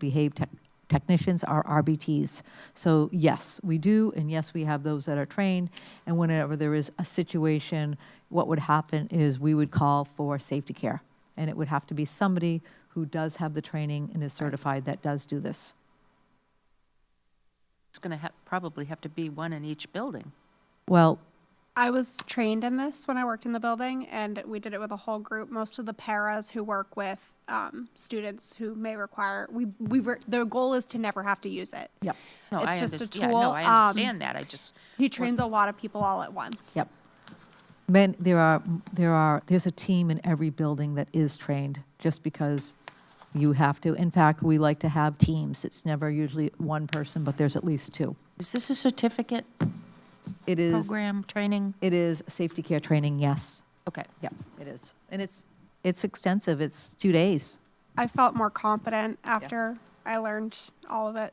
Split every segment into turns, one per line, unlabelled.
behave tech- technicians are RBTs. So yes, we do, and yes, we have those that are trained. And whenever there is a situation, what would happen is we would call for safety care. And it would have to be somebody who does have the training and is certified that does do this.
It's going to have, probably have to be one in each building.
Well,
I was trained in this when I worked in the building, and we did it with a whole group. Most of the paras who work with um, students who may require we we were, the goal is to never have to use it.
yep,
No,
It's
I
just a
understand, yeah,
tool,
no, I
um,
understand that, I just,
He trains a lot of people all at once.
yep. Men, there are, there are, there's a team in every building that is trained, just because you have to. In fact, we like to have teams. It's never usually one person, but there's at least two.
is this a certificate
It is,
program, training?
it is safety care training, yes.
Okay,
Yeah, it is. And it's, it's extensive. It's two days.
I felt more confident after I learned all of it.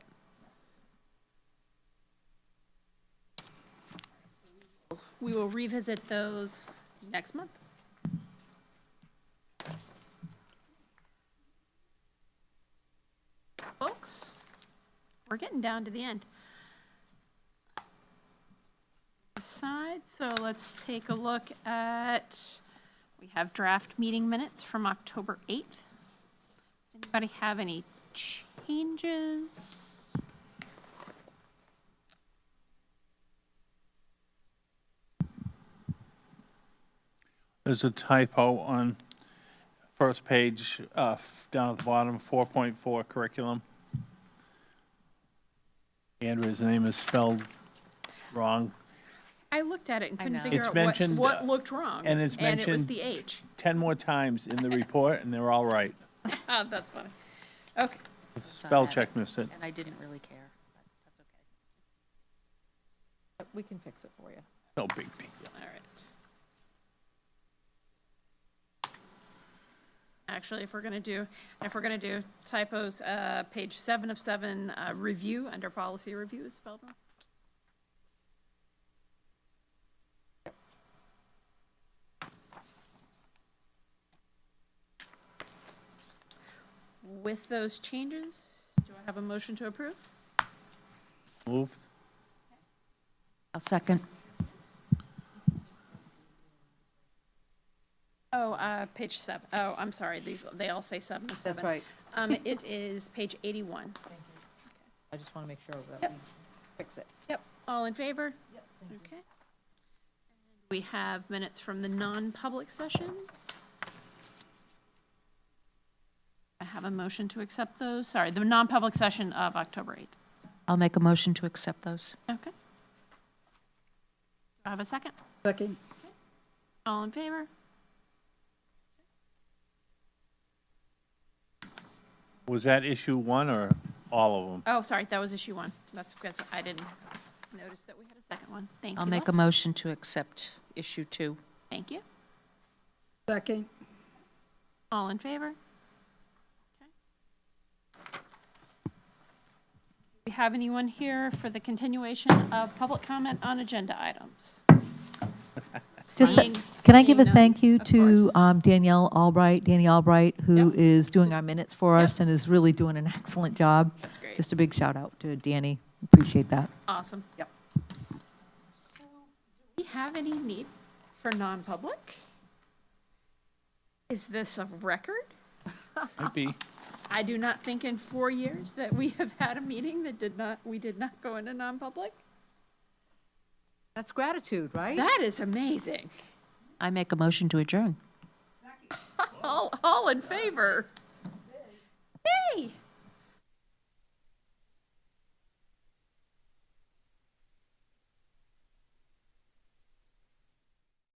We will revisit those next month. Folks, we're getting down to the end. Aside, so let's take a look at, we have draft meeting minutes from October 8th. Does anybody have any changes?
There's a typo on first page, uh, f- down at the bottom, 4.4 curriculum. Andrew's name is spelled wrong.
I looked at it and couldn't
know.
figure
It's
out what,
mentioned,
what
uh,
looked wrong.
and it's
And it was
mentioned-
the H.
10 more times in the report, and they're all right.
Oh, that's funny. Okay,
Spell check missed it.
and I didn't really care, but that's okay.
we can fix it for you.
No big deal.
All right. Actually, if we're gonna do, if we're gonna do typos, uh, page seven of seven, uh, review, under policy review is spelled wrong. With those changes, do I have a motion to approve?
Moved?
I'll second.
Oh, uh, page seven. Oh, I'm sorry, these, they all say seven of seven.
right.
Um, it is page eighty-one.
I just want to make sure that
Yep.
we fix it.
Yep, all in favor? Yep. Okay. We have minutes from the non-public session. I have a motion to accept those, sorry, the non-public session of October eighth.
I'll make a motion to accept those.
Okay. Do I have a second?
Second.
All in favor?
Was that issue one or all of them?
Oh, sorry, that was issue one. That's because I didn't notice that we had a second one. Thank you,
I'll make a
Les.
motion to accept issue two.
Thank you.
Second.
All in favor? Okay. Do we have anyone here for the continuation of public comment on agenda items?
Just, a-
Seeing-
can I give a
seeing none,
thank you
of
to
course.
um, Danielle Albright, Danny Albright, who
Yep.
is doing our minutes for
Yep.
us and is really doing an excellent job.
That's great.
Just a big shout out to Danny. Appreciate that.
Awesome.
Yep.
So, Do we have any need for non-public? Is this a record?
Might be.
I do not think in four years that we have had a meeting that did not, we did not go into non-public.
That's gratitude, right?
That is amazing.
I make a motion to adjourn.
All, all in favor?